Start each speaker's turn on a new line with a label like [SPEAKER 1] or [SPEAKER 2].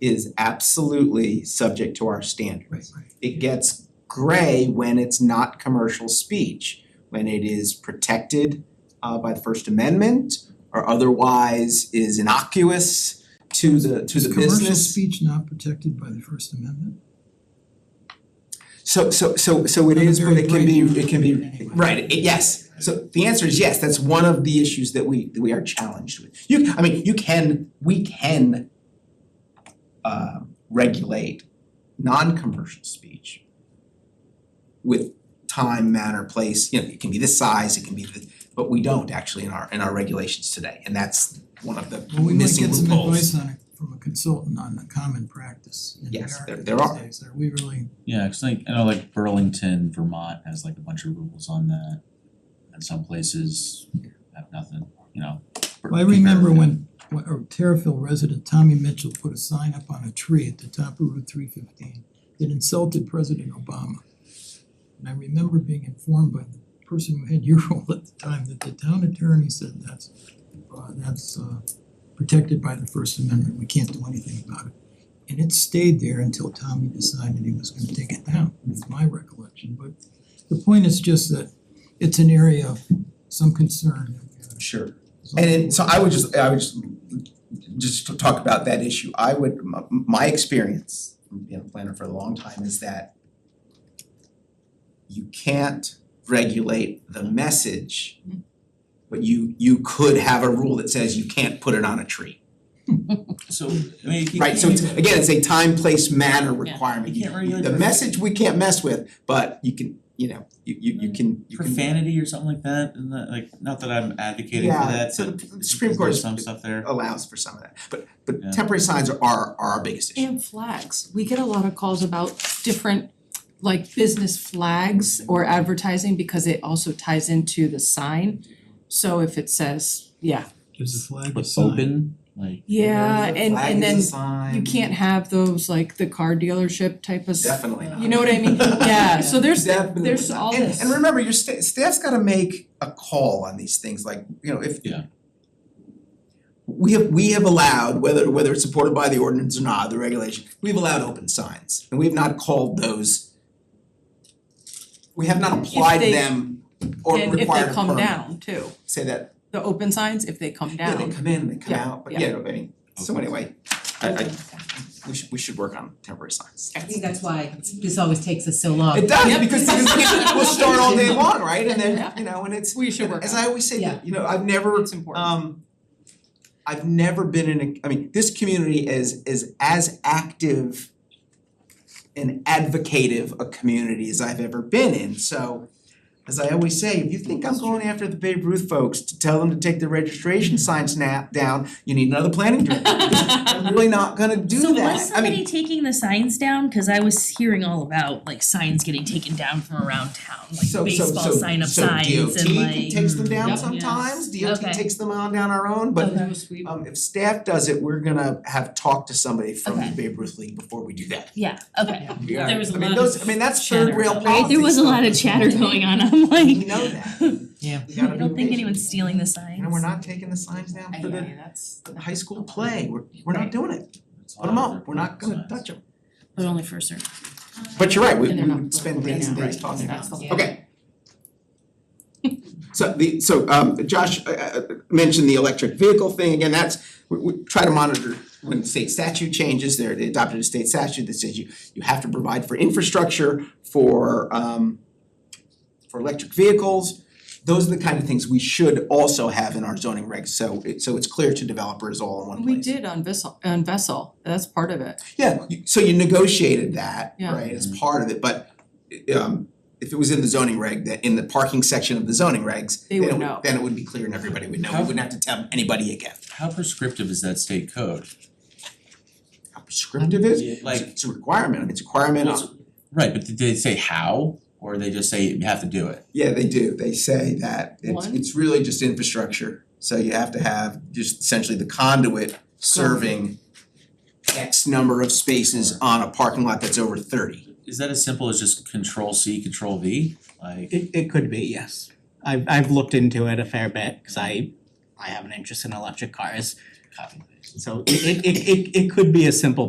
[SPEAKER 1] is absolutely subject to our standards. It gets gray when it's not commercial speech, when it is protected uh by the First Amendment or otherwise is innocuous to the to
[SPEAKER 2] Is
[SPEAKER 1] the
[SPEAKER 2] commercial
[SPEAKER 1] business.
[SPEAKER 2] speech not protected by the First Amendment?
[SPEAKER 1] So so so so it
[SPEAKER 2] Not a
[SPEAKER 1] is, but
[SPEAKER 2] very
[SPEAKER 1] it can be,
[SPEAKER 2] bright
[SPEAKER 1] it can
[SPEAKER 2] view
[SPEAKER 1] be,
[SPEAKER 2] anyway.
[SPEAKER 1] right, it- yes. So the answer is yes, that's one of the issues that we that we are challenged with. You, I mean, you can, we can uh regulate non-commercial speech with time, manner, place, you know, it can be this size, it can be this, but we don't actually in our in our regulations today, and that's one of the
[SPEAKER 2] Well, we might
[SPEAKER 1] missing
[SPEAKER 2] get
[SPEAKER 1] loopholes.
[SPEAKER 2] some advice on it from a consultant on the common practice in
[SPEAKER 1] Yes, there-
[SPEAKER 2] America
[SPEAKER 1] there
[SPEAKER 2] these
[SPEAKER 1] are.
[SPEAKER 2] days. Are we really,
[SPEAKER 3] Yeah, 'cause like, I know like Burlington, Vermont has like a bunch of rules on that. And some places have nothing, you know. for-
[SPEAKER 2] Well, I remember when, when a Terriffill resident Tommy Mitchell put a sign up on a tree at the top of Route three fifteen that insulted President Obama. And I remember being informed by the person who had your role at the time that the town attorney said that's uh that's uh protected by the First Amendment, we can't do anything about it. And it stayed there until Tommy decided he was gonna take it down, is my recollection, but the point is just that it's an area of some concern.
[SPEAKER 1] Sure. And then, so I would just, I would just, just to talk about that issue, I would, my my experience, being a planner for a long time, is that you can't regulate the message, but you you could have a rule that says you can't put it on a tree.
[SPEAKER 3] So, I mean, you
[SPEAKER 1] Right, so it's,
[SPEAKER 3] can't-
[SPEAKER 1] again, it's a time, place, manner requirement.
[SPEAKER 3] You can't regulate
[SPEAKER 1] The
[SPEAKER 3] prof-
[SPEAKER 1] message we can't mess with, but you can, you know, you you
[SPEAKER 3] Mm.
[SPEAKER 1] you can, you can.
[SPEAKER 3] Profanity or something like that, and that, like, not that I'm advocating for
[SPEAKER 1] Yeah,
[SPEAKER 3] that,
[SPEAKER 1] so
[SPEAKER 3] but
[SPEAKER 1] the- the Supreme Court
[SPEAKER 3] there's
[SPEAKER 1] is- Oh,
[SPEAKER 3] some stuff there.
[SPEAKER 1] allows for some of that, but
[SPEAKER 3] Yeah.
[SPEAKER 1] but temporary signs are are our biggest issue.
[SPEAKER 4] And flags, we get a lot of calls about different like business flags or advertising because it also ties into the sign. So if it says, yeah,
[SPEAKER 2] Gives the flag a
[SPEAKER 3] But
[SPEAKER 2] sign.
[SPEAKER 3] open, like,
[SPEAKER 4] yeah, and and then
[SPEAKER 1] then
[SPEAKER 4] you can't have those like the car dealership type of, s-
[SPEAKER 1] Definitely not.
[SPEAKER 4] you know what I mean? Yeah, so there's
[SPEAKER 1] Definitely
[SPEAKER 4] there's
[SPEAKER 1] not.
[SPEAKER 4] all
[SPEAKER 1] And-
[SPEAKER 4] this.
[SPEAKER 1] And remember, your sta- staff's gotta make a call on these things, like, you know, if
[SPEAKER 3] Yeah.
[SPEAKER 1] we have we have allowed, whether whether it's supported by the ordinance or not, the regulation, we've allowed open signs, and we have not called those we have not applied
[SPEAKER 4] they-
[SPEAKER 1] them or required a
[SPEAKER 4] and if they come
[SPEAKER 1] permit.
[SPEAKER 4] down too,
[SPEAKER 1] Say that,
[SPEAKER 4] the open signs, if they come
[SPEAKER 1] yeah,
[SPEAKER 4] down.
[SPEAKER 1] they come in, they come
[SPEAKER 4] Yeah,
[SPEAKER 1] out, but
[SPEAKER 4] yeah.
[SPEAKER 1] yeah, I mean, so
[SPEAKER 3] Okay.
[SPEAKER 1] anyway, I I we should we should work on temporary signs.
[SPEAKER 5] I think that's why this always takes us so long.
[SPEAKER 1] It does,
[SPEAKER 4] Uh-huh. Yep.
[SPEAKER 1] because because we'll start all day long, right? And then,
[SPEAKER 4] Yeah.
[SPEAKER 1] you know, and it's
[SPEAKER 4] We should work
[SPEAKER 1] As
[SPEAKER 4] on
[SPEAKER 1] I always say,
[SPEAKER 5] Yeah.
[SPEAKER 1] you know, I've never,
[SPEAKER 4] it's important.
[SPEAKER 1] um, I've never been in a, I mean, this community is, is as active and advocative a community as I've ever been in, so as I always say, if you think I'm going after the Babe Ruth folks to tell them to take their registration sign snap down, you need another planning director. I'm really not gonna do
[SPEAKER 6] So
[SPEAKER 1] that,
[SPEAKER 6] was
[SPEAKER 1] I
[SPEAKER 6] somebody
[SPEAKER 1] mean,
[SPEAKER 6] taking the signs down? Cause I was hearing all about like signs getting taken down from around town,
[SPEAKER 1] so
[SPEAKER 6] like
[SPEAKER 1] so
[SPEAKER 6] baseball
[SPEAKER 1] so
[SPEAKER 6] sign up
[SPEAKER 1] so
[SPEAKER 6] signs and
[SPEAKER 1] DOT
[SPEAKER 6] like.
[SPEAKER 1] takes them down
[SPEAKER 4] Yep.
[SPEAKER 1] sometimes,
[SPEAKER 6] Okay.
[SPEAKER 1] DOT takes them on down our own, but
[SPEAKER 4] That was sweet.
[SPEAKER 1] Um if staff does it, we're gonna have talked to somebody from the
[SPEAKER 6] Okay.
[SPEAKER 1] Babe Ruth League before we do that.
[SPEAKER 6] Yeah, okay.
[SPEAKER 1] We
[SPEAKER 6] There
[SPEAKER 1] are-
[SPEAKER 6] was a
[SPEAKER 1] I mean
[SPEAKER 6] lot
[SPEAKER 1] those,
[SPEAKER 6] of
[SPEAKER 1] I mean, that's third
[SPEAKER 6] chatter
[SPEAKER 1] rail
[SPEAKER 6] about
[SPEAKER 1] politics
[SPEAKER 6] it. Right, there was a lot of chatter going on, I'm
[SPEAKER 1] We
[SPEAKER 6] like,
[SPEAKER 1] know that.
[SPEAKER 5] Yeah.
[SPEAKER 1] We gotta
[SPEAKER 6] I
[SPEAKER 1] be
[SPEAKER 6] don't think
[SPEAKER 1] patient.
[SPEAKER 6] anyone's stealing the signs.
[SPEAKER 1] You know, we're not taking the signs down for the
[SPEAKER 4] that's.
[SPEAKER 1] the high school play, we're we're not
[SPEAKER 6] Right.
[SPEAKER 1] doing it,
[SPEAKER 3] it's
[SPEAKER 1] put them
[SPEAKER 3] all over
[SPEAKER 1] up, we're not gonna
[SPEAKER 3] signs.
[SPEAKER 1] touch them.
[SPEAKER 6] But only for a certain.
[SPEAKER 1] But you're right, we
[SPEAKER 4] And
[SPEAKER 1] we
[SPEAKER 4] they're not
[SPEAKER 1] would spend
[SPEAKER 4] playing
[SPEAKER 1] days and
[SPEAKER 4] now,
[SPEAKER 1] days
[SPEAKER 4] right,
[SPEAKER 1] talking about
[SPEAKER 4] that's
[SPEAKER 1] it.
[SPEAKER 4] the
[SPEAKER 5] Yeah.
[SPEAKER 1] Okay. So the, so um Josh uh, uh, mentioned the electric vehicle thing, again, that's, we we try to monitor when state statute changes, there they adopted a state statute that says you you have to provide for infrastructure for um for electric vehicles. Those are the kind of things we should also have in our zoning regs, so it so it's clear to developers all in one place.
[SPEAKER 4] We did on Vessel, on Vessel, that's part of it.
[SPEAKER 1] Yeah, you- so you negotiated that,
[SPEAKER 4] Yeah.
[SPEAKER 1] right, as part of it, but i- um if it was in the zoning reg, that in the parking section of the zoning regs,
[SPEAKER 4] They
[SPEAKER 1] then
[SPEAKER 4] would
[SPEAKER 1] it
[SPEAKER 4] know.
[SPEAKER 1] would, then it would be clear and everybody would know, we
[SPEAKER 3] How-
[SPEAKER 1] wouldn't have to tell anybody again.
[SPEAKER 3] How prescriptive is that state code?
[SPEAKER 1] How prescriptive it is,
[SPEAKER 3] Yeah.
[SPEAKER 1] like
[SPEAKER 3] Like-
[SPEAKER 1] it's a requirement, I mean, it's a requirement
[SPEAKER 3] Well,
[SPEAKER 1] on,
[SPEAKER 3] Right, but did they say how, or they just say you have to do it?
[SPEAKER 1] yeah, they do, they say that it's
[SPEAKER 4] One?
[SPEAKER 1] it's really just infrastructure. So you have to have just essentially the conduit serving X number of spaces on a parking lot that's over thirty.
[SPEAKER 3] Is that as simple as just control C, control V? Like,
[SPEAKER 7] It it could be, yes. I've I've looked into it a fair bit, cause I I have an interest in electric cars.
[SPEAKER 3] copy.
[SPEAKER 7] So it it it it it could be a simple